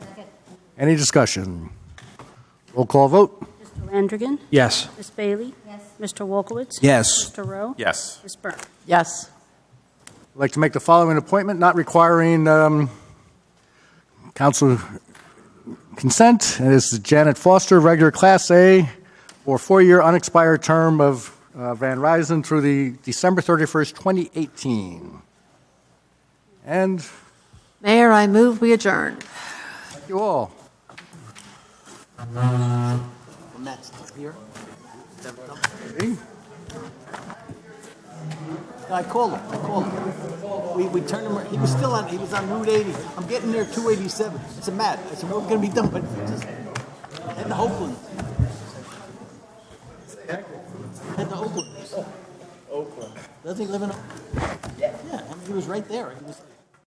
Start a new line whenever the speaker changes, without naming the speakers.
Any discussion? Roll call vote?
Mr. Landrigan?
Yes.
Ms. Bailey? Yes. Mr. Wolkowitz?
Yes.
Mr. Rowe?
Yes.
Ms. Byrne?
Yes.
I'd like to make the following appointment, not requiring um, council consent. And this is Janet Foster, regular Class A, for a four-year unexpired term of uh, Van Ryzen through the December 31st, 2018. And thank
Mayor, I move we adjourn.
you all.
And that's up here? Them- them-
See?
I called him, I called him. We, we turned him, ar- he was still on, he was on Route 80. I'm getting near 287. It's a Matt. I said, we're gonna be done, but just head to Oakland. Head to Oakland. Doesn't he live in? Oakland? Yeah, I mean, he was right there. He was-